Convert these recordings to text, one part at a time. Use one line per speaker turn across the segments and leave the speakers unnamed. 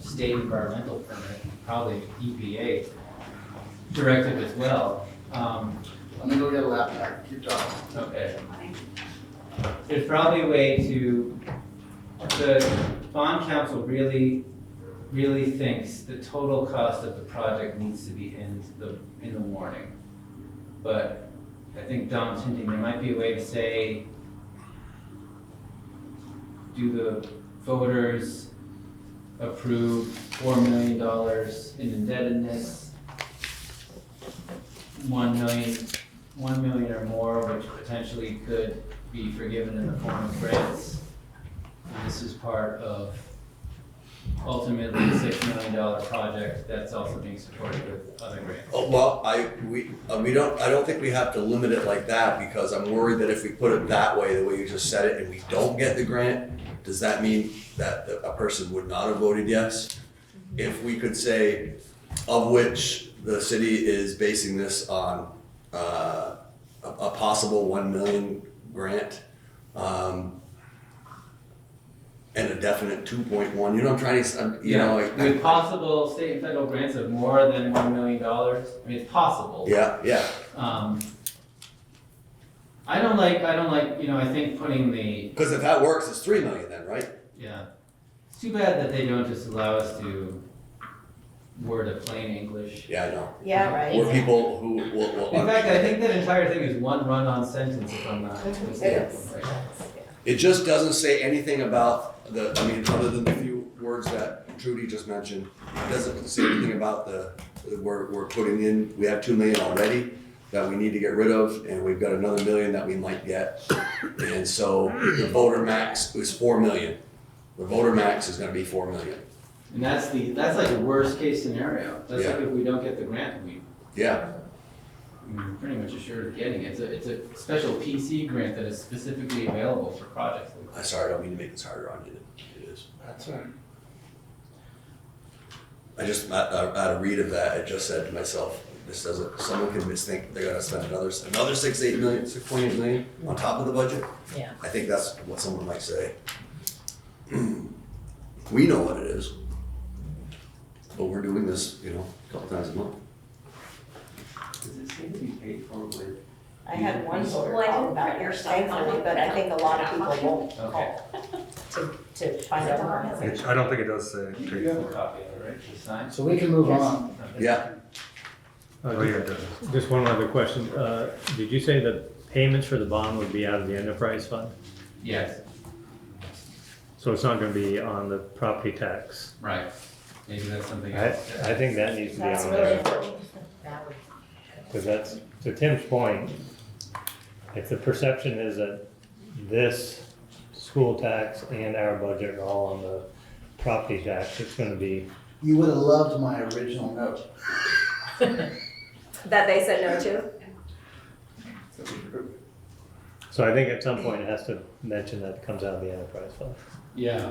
state environmental permit, probably EPA directive as well. Um,
Let me go get a laptop, keep talking.
okay. There's probably a way to, the bond council really, really thinks the total cost of the project needs to be in the, in the warning. But I think Dom's hinting, there might be a way to say, do the voters approve four million dollars in indebtedness? One million, one million or more, which potentially could be forgiven in the form of grants. And This is part of ultimately a six million dollar project that's also being supported with other grants.
Oh, Well, I, we, uh, we don't, I don't think we have to limit it like that, because I'm worried that if we put it that way, the way you just said it, and we don't get the grant, does that mean that the- a person would not have voted yes? If we could say, of which the city is basing this on, uh, a, a possible one million grant, um, and a definite two point one, you know, I'm trying to, s- I'm- you know, like.
With possible state and federal grants of more than one million dollars, I mean, it's possible.
Yeah, yeah,
Um, I don't like, I don't like, you know, I think putting the,
Because if that works, it's three million then, right?
yeah, it's too bad that they don't just allow us to word a plain English.
Yeah, I know.
Yeah, right.
Or people who will, will.
In fact, I think that entire thing is one run-on sentence if I'm not mistaken.
It just doesn't say anything about the, I mean, other than the few words that Trudy just mentioned, it doesn't say anything about the, that we're, we're putting in, we have two million already that we need to get rid of, and we've got another million that we might get. And so the voter max is four million. The voter max is gonna be four million.
And that's the, that's like the worst-case scenario. That's like if we don't get the grant, we,
Yeah,
we're pretty much assured of getting it. It's a, it's a special PC grant that is specifically available for projects like
I'm sorry, I don't mean to make this harder on you than it is.
That's right.
I just, at, at a read of that, I just said to myself, this doesn't, someone can misthinking they're gonna spend another, another six, eight million, six point eight million on top of the budget?
Yeah.
I think that's what someone might say. We know what it is. But we're doing this, you know, a couple times a month.
Does it seem to be paid for with?
I had one voter
Well, I
call
didn't
about your
print yours, so I'm
thankfully,
not-
but I think a lot of
not
people won't
Okay.
call to, to find out more.
It- I don't think it does say paid
Yeah.
for.
copy of it, right? To sign?
So we can move on.
Yeah,
Oh, yeah, it does.
Uh, Just one other question. Uh, Did you say the payments for the bond would be out of the enterprise fund?
Yes,
So it's not going to be on the property tax?
right. Maybe that's something
I,
else.
I think that needs to be
That's
on
really
there,
important. That would-
because that's, to Tim's point, if the perception is that this school tax and our budget are all on the property tax, it's going to be,
You would have loved my original note.
That they said no to?
so I think at some point it has to mention that it comes out of the enterprise fund.
Yeah.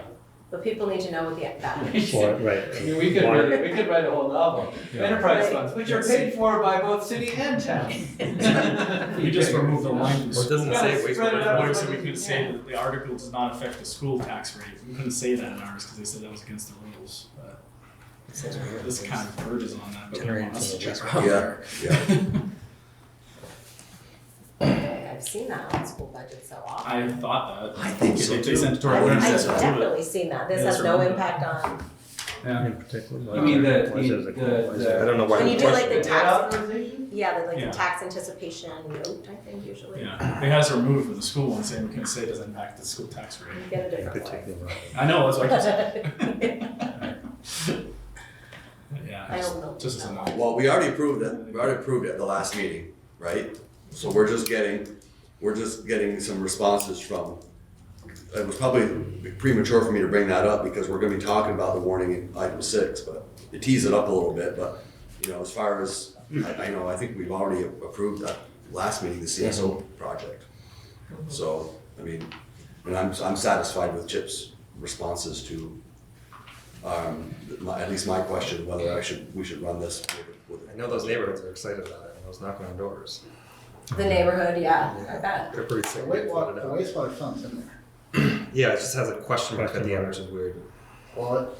But people need to know what the, that means.
Or,
I
right.
mean, we could,
Why-
really- we could write a whole novel.
Yeah.
Enterprise funds, which are paid for by both city and town.
We just removed the line.
Well, it doesn't
Yeah,
say
it's
waste
spread it out.
water, so we couldn't say that the article does not affect the school tax rate. We couldn't say that in ours because they said that was against the rules. But This kind of verges on that, but they don't want us to check.
yeah, yeah.
Okay, I've seen that on school budgets so often.
I thought that.
I think
They-
so,
they
too.
sent it to
I
our
think
website.
so.
I've
That's-
definitely seen that. This
Yeah,
has
that's
no
right.
impact on,
Yeah.
In particular.
You mean the-
Why says
the-
it- why says-
the-
I don't know why.
When
we
you do, like,
question
the
it.
tax-
authorization?
yeah, the, like
Yeah.
the tax anticipation note, I think usually. You
Yeah, they had us removed from the school one saying we couldn't say it doesn't impact the school tax rate.
get a
In
different one.
particular.
I know, that's what I keep
I
saying. Yeah,
don't know.
just as annoying.
Uh, Well, we already approved it, we already approved it at the last meeting, right? So we're just getting, we're just getting some responses from, it was probably premature for me to bring that up because we're gonna be talking about the warning in item six, but to tease it up a little bit, but, you know, as far as, I, I know, I think we've already approved that last meeting, the CSO project. So, I mean, and I'm, I'm satisfied with Chip's responses to, um, my, at least my question, whether I should, we should run this with, with
I know those neighborhoods are excited about it, and I was knocking on doors.
The neighborhood, yeah, I bet.
They're pretty
The
excited.
wastewater,
about
the
it.
wastewater fund's in there.
Yeah, it just has a question mark at
Question
the end,
mark.
which is weird.
Well,